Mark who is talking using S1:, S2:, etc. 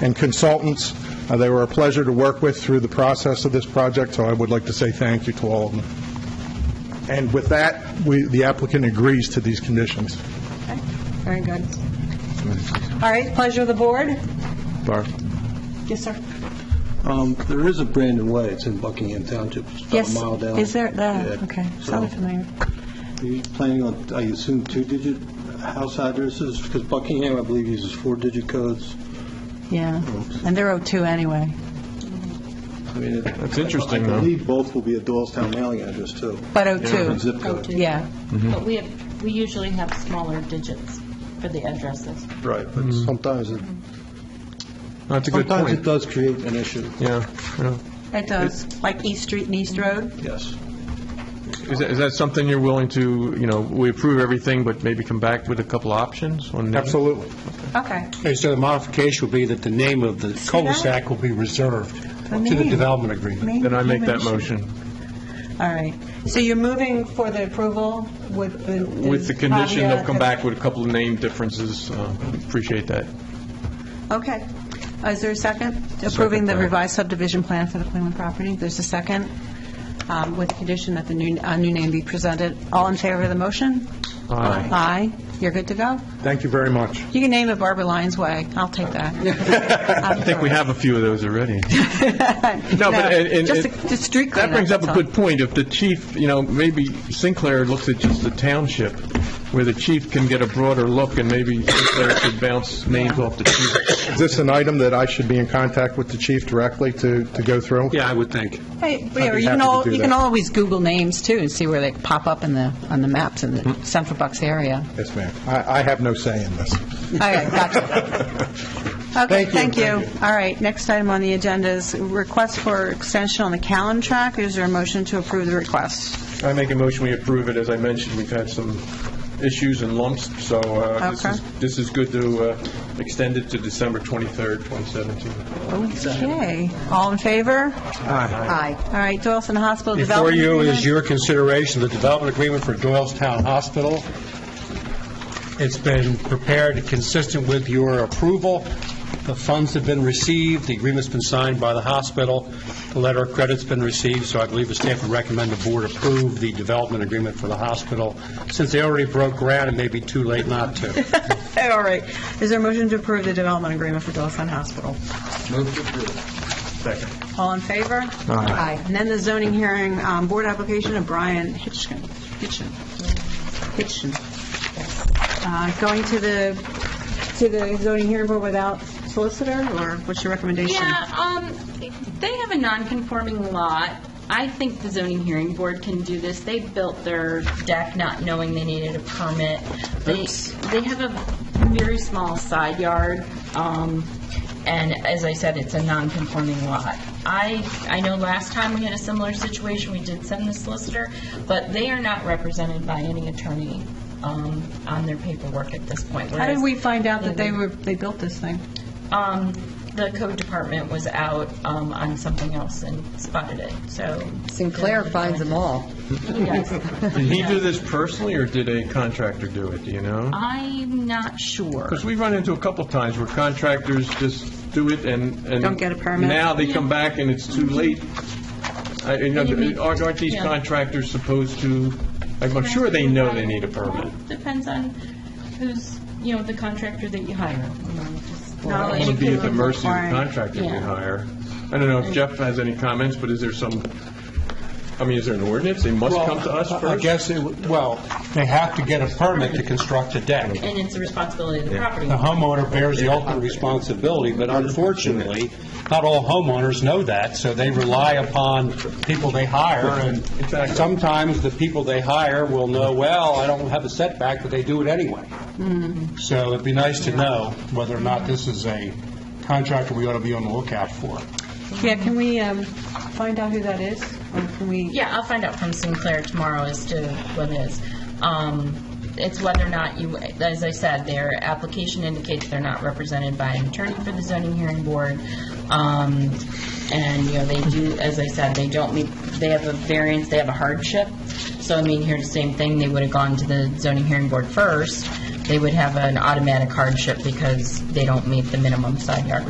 S1: and consultants. Uh, They were a pleasure to work with through the process of this project, so I would like to say thank you to all of them. And with that, we- the applicant agrees to these conditions.
S2: Okay, Very good. All right, pleasure of the board.
S1: Barb?
S2: Yes, sir.
S3: Um, There is a Brandon Way, it's in Buckingham Township, it's about a
S2: Yes,
S3: mile down.
S2: is there, uh, that,
S3: Yeah.
S2: okay,
S3: So,
S2: sounded familiar.
S3: Are you planning on, I assume, two-digit house addresses? Because Buckingham, I believe, uses four-digit codes.
S2: Yeah, and they're 02 anyway.
S3: I mean, it-
S4: That's interesting,
S3: I
S4: though.
S3: believe both will be a Doylestown mailing address, too.
S2: But
S3: And
S2: 02,
S3: zip code.
S2: yeah.
S5: But we have, we usually have smaller digits for the addresses.
S3: Right, but sometimes it,
S4: That's a good
S3: sometimes it
S4: point.
S3: does create an issue,
S4: Yeah, yeah.
S2: It does, like East Street and East Road?
S3: yes.
S4: Is that, is that something you're willing to, you know, we approve everything, but maybe come back with a couple options on names?
S1: Absolutely.
S2: Okay.
S6: Okay, so the modification will be that the name of the cul-de-sac will be reserved to the
S2: name.
S6: development agreement.
S4: Then I make that motion
S2: All right. So you're moving for the approval with the...
S4: with the condition
S2: caveat
S4: of come back with a couple of name differences. Uh, Appreciate that.
S2: Okay. Uh, Is there a second? Approving the
S4: Second.
S2: revised subdivision plan for the Cleveland property? There's a second, um, with the condition that the new, uh, new name be presented. All in favor of the motion?
S4: Aye.
S2: Aye. You're good to go?
S1: Thank you very much.
S2: You can name it Barbara Lyons Way. I'll take that.
S4: I think we have a few of those already. No, but, and- and-
S2: Just a- just street
S4: That
S2: cleanup,
S4: brings up a
S2: that's all.
S4: good point. If the chief, you know, maybe Sinclair looks at just the township, where the chief can get a broader look, and maybe Sinclair could bounce names off the chief.
S1: Is this an item that I should be in contact with the chief directly to, to go through?
S6: Yeah, I would think.
S2: Hey, yeah,
S1: I'd
S2: or
S1: be
S2: you
S1: happy
S2: can
S1: to
S2: al,
S1: do
S2: you can
S1: that.
S2: always Google names, too, and see where they pop up in the, on the maps in
S4: Mm-hmm.
S2: the Central Bucks area.
S1: Yes, ma'am. I, I have no say in this.
S2: All right, gotcha. Okay, thank you. All right, next item on the agenda is request for extension on the Callan track. Is there a motion to approve the request?
S4: I make a motion, we approve it. As I mentioned, we've had some issues and lumps, so uh, this
S2: Okay.
S4: is, this is good to uh, extend it to December 23rd, 2017.
S2: Okay, all in favor? Aye. All right, Doylestown Hospital
S6: Before
S2: Development
S6: you is
S2: Agreement.
S6: your consideration, the development agreement for Doylestown Hospital. It's been prepared consistent with your approval. The funds have been received, the agreement's been signed by the hospital, the letter of credit's been received, so I believe the staff would recommend the board approve the development agreement for the hospital. Since they already broke ground, it may be too late not to.
S2: All right, is there a motion to approve the development agreement for Doylestown Hospital?
S1: Second.
S2: All in favor? Aye. And then the zoning hearing, um, board application of Brian Hitchin, Hitchin, Hitchin. Uh, Going to the, to the zoning hearing board without solicitor, or what's your recommendation?
S5: Yeah, um, they have a non-conforming lot. I think the zoning hearing board can do this. They built their deck not knowing they needed a permit. They, they have a very small side yard, um, and as I said, it's a non-conforming lot. I, I know last time we had a similar situation, we did send the solicitor, but they are not represented by any attorney, um, on their paperwork at this point.
S2: How did
S5: whereas-
S2: we find out that they were, they built this thing?
S5: um, the code department was out um, on something else and spotted it, so.
S7: Sinclair finds them all.
S5: Yes.
S4: Did he do this personally, or did a contractor do it, do you know?
S5: I'm not sure.
S4: Because we've run into a couple times where contractors just do it and... and
S2: Don't get a permit. Mm-hmm.
S4: Now they come back and it's too late. I- you know,
S5: And you need-
S4: Aren't aren't these
S5: yeah.
S4: contractors supposed to, I'm I'm sure they know they need a permit.
S5: Depends on who's, you know, the contractor that you hire. you know, just-
S2: No,
S4: I wouldn't be at the mercy of the
S2: Right.
S4: contractor we
S5: Yeah.
S4: hire. I don't know if Jeff has any comments, but is there some, I mean, is there an ordinance? They must come to us
S6: I
S4: first?
S6: guess, it would- well, they have to get a permit to construct a deck.
S5: And it's the responsibility of the property.
S6: The homeowner bears the ultimate responsibility, but unfortunately, not all homeowners know that, so they rely upon people they hire, and
S4: Exactly.
S6: sometimes the people they hire will know, well, I don't have a setback, but they do it anyway. So it'd be nice to know whether or not this is a contractor we ought to be on the lookout for.
S2: Yeah, can we um, find out who that is? Or can we,
S5: Yeah, I'll find out from Sinclair tomorrow as to what it is. Um, It's whether or not you, as I said, their application indicates they're not represented by an attorney for the zoning hearing board. Um, And, you know, they do, as I said, they don't meet, they have a variance, they have a hardship. So, I mean, here's the same thing, they would have gone to the zoning hearing board first. They would have an automatic hardship because they don't meet the minimum side yard